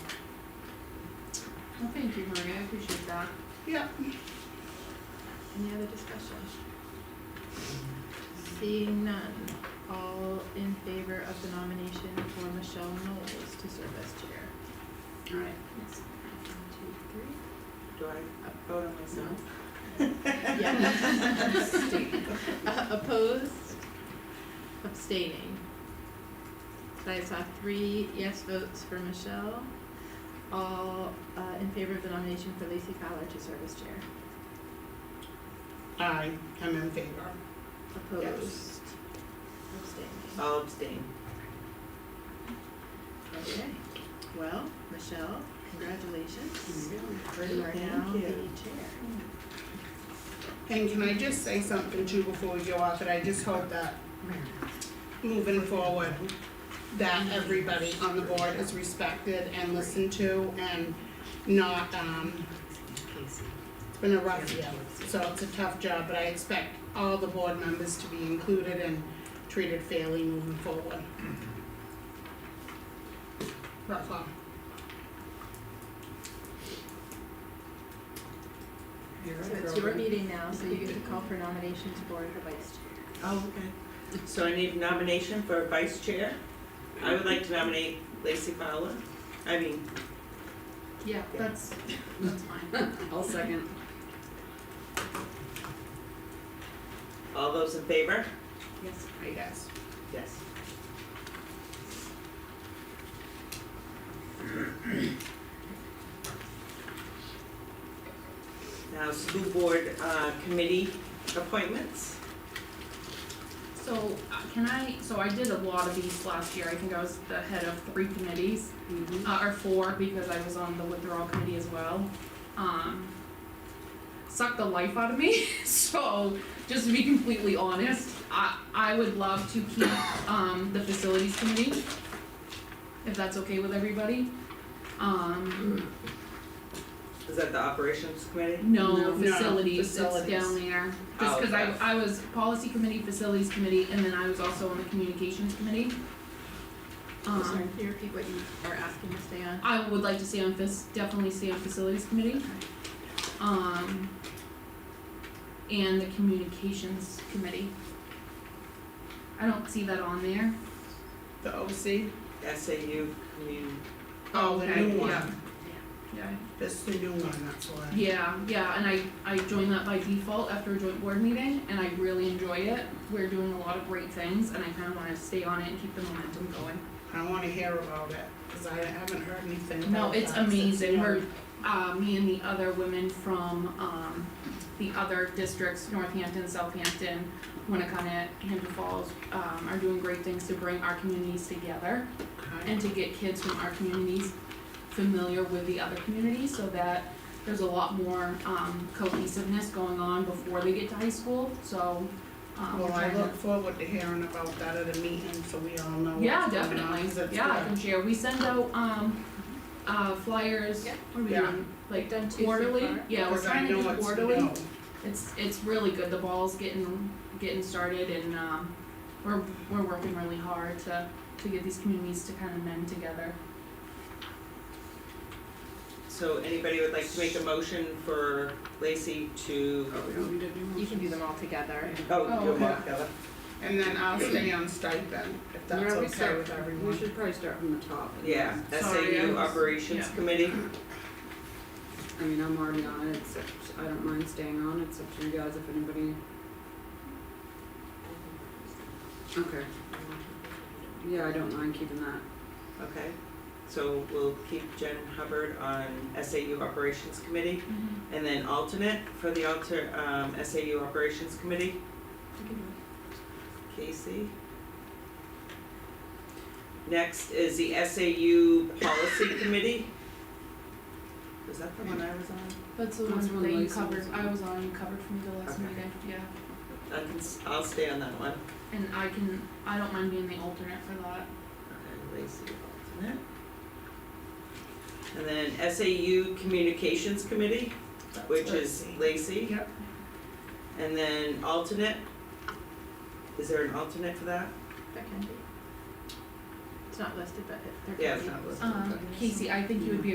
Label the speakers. Speaker 1: Well, thank you, Maria, I appreciate that.
Speaker 2: Yeah.
Speaker 1: Any other discussion? Seeing none, all in favor of the nomination for Michelle Knowles to serve as chair?
Speaker 2: All right,
Speaker 1: Yes. One,
Speaker 2: do I vote on
Speaker 1: two, three.
Speaker 2: myself?
Speaker 1: Yeah. Uh, Opposed? Abstaining. So I saw three yes votes for Michelle, all uh, in favor of the nomination for Lacey Fowler to serve as chair.
Speaker 3: I am in favor.
Speaker 1: Opposed? Abstaining.
Speaker 2: I'll abstain.
Speaker 1: Okay, well, Michelle, congratulations. You're now
Speaker 2: Thank
Speaker 1: the chair.
Speaker 2: you.
Speaker 3: And can I just say something too before we go off, that I just hope that moving forward, that everybody on the board is respected and listened to and not, um, it's been a rough year, so it's a tough job, but I expect all the board members to be included and treated fairly moving forward. Rough one.
Speaker 1: So it's your meeting now, so you get to call for nominations for the vice chair.
Speaker 2: Oh, okay. So I need nomination for vice chair. I would like to nominate Lacey Fowler. I mean,
Speaker 1: Yeah, that's, that's fine.
Speaker 4: I'll second.
Speaker 2: all those in favor?
Speaker 1: Yes.
Speaker 3: I guess.
Speaker 2: Yes. Now, school board uh, committee appointments.
Speaker 4: So uh, can I, so I did a lot of these last year, I think I was the head of three committees, uh, or four, because I was on the withdrawal committee as well. Um, sucked the life out of me, so just to be completely honest, I, I would love to keep, um, the facilities committee, if that's okay with everybody. Um,
Speaker 2: Is that the operations committee?
Speaker 4: No,
Speaker 3: No.
Speaker 4: facilities,
Speaker 3: No,
Speaker 4: it's down
Speaker 3: facilities.
Speaker 4: there, just cause I,
Speaker 2: Okay.
Speaker 4: I was policy committee, facilities committee, and then I was also on the communications committee.
Speaker 1: I'm
Speaker 4: Um,
Speaker 1: Oh, sorry, can you repeat what you are asking to stay on?
Speaker 4: I would like to stay on this, definitely stay on facilities committee. Um, and the communications committee. I don't see that on there.
Speaker 3: The OC,
Speaker 2: SAU community.
Speaker 3: oh, the new
Speaker 4: Okay,
Speaker 3: one.
Speaker 4: yeah. Yeah.
Speaker 3: This is the new one, that's the one.
Speaker 4: Yeah, yeah, and I, I joined that by default after a joint board meeting, and I really enjoy it. We're doing a lot of great things, and I kinda wanna stay on it and keep the momentum going.
Speaker 3: I wanna hear about it, cause I haven't heard anything
Speaker 4: No,
Speaker 3: about
Speaker 4: it's
Speaker 3: that since
Speaker 4: amazing,
Speaker 3: then.
Speaker 4: we're, uh, me and the other women from, um, the other districts, Northampton, Southampton, Winnicott, Hampton Falls, um, are doing great things to bring our communities together
Speaker 3: Okay.
Speaker 4: and to get kids from our communities familiar with the other communities so that there's a lot more, um, cohesiveness going on before they get to high school, so, um, we're
Speaker 3: Well, I
Speaker 4: trying to-
Speaker 3: look forward to hearing about that at a meeting, so we all know
Speaker 4: Yeah,
Speaker 3: what's going on, 'cause
Speaker 4: definitely,
Speaker 3: it's
Speaker 4: yeah, I
Speaker 3: good.
Speaker 4: can share, we send out, um, uh, flyers,
Speaker 1: Yeah.
Speaker 4: what are we
Speaker 3: Yeah.
Speaker 4: doing? like
Speaker 1: Done two so
Speaker 4: quarterly,
Speaker 1: far?
Speaker 4: yeah, we're
Speaker 3: Because I
Speaker 4: trying to
Speaker 3: know
Speaker 4: do
Speaker 3: it's-
Speaker 4: quarterly,
Speaker 3: no.
Speaker 4: it's, it's really good, the ball's getting, getting started and, um, we're, we're working really hard to, to get these communities to kind of mend together.
Speaker 2: So anybody would like to make a motion for Lacey to,
Speaker 1: You can do them all together.
Speaker 2: oh, you're
Speaker 3: okay.
Speaker 2: Mark, Ella.
Speaker 3: And then I'll stay on stipend, if that's okay with everyone.
Speaker 5: probably start from the top.
Speaker 2: Yeah,
Speaker 4: Sorry, I
Speaker 2: SAU
Speaker 4: was-
Speaker 2: operations
Speaker 4: yeah.
Speaker 2: committee.
Speaker 5: I mean, I'm already on it, except, I don't mind staying on, it's up to you guys if anybody. Okay. Yeah, I don't mind keeping that.
Speaker 2: Okay, so we'll keep Jen Hubbard on SAU Operations Committee,
Speaker 1: Mm-hmm.
Speaker 2: and then alternate for the alter, um, SAU Operations Committee, Casey. Next is the SAU Policy Committee. Was that the one I was on?
Speaker 4: That's the
Speaker 5: That's
Speaker 4: one
Speaker 5: one
Speaker 4: that you
Speaker 5: Lacey
Speaker 4: covered,
Speaker 5: was on.
Speaker 4: I was on, you covered from the last
Speaker 2: Okay.
Speaker 4: meeting, yeah,
Speaker 2: I can, s- I'll stay on that one.
Speaker 4: and I can, I don't mind being the alternate for that.
Speaker 2: Okay, Lacey, alternate. And then SAU Communications Committee,
Speaker 3: That's
Speaker 2: which
Speaker 3: what
Speaker 2: is
Speaker 3: I see.
Speaker 2: Lacey.
Speaker 3: Yep.
Speaker 2: And then alternate, is there an alternate for that?
Speaker 1: That can be. It's not listed, but it, there can be.
Speaker 2: Yeah, it's not listed.
Speaker 4: Um, Casey, I think you would be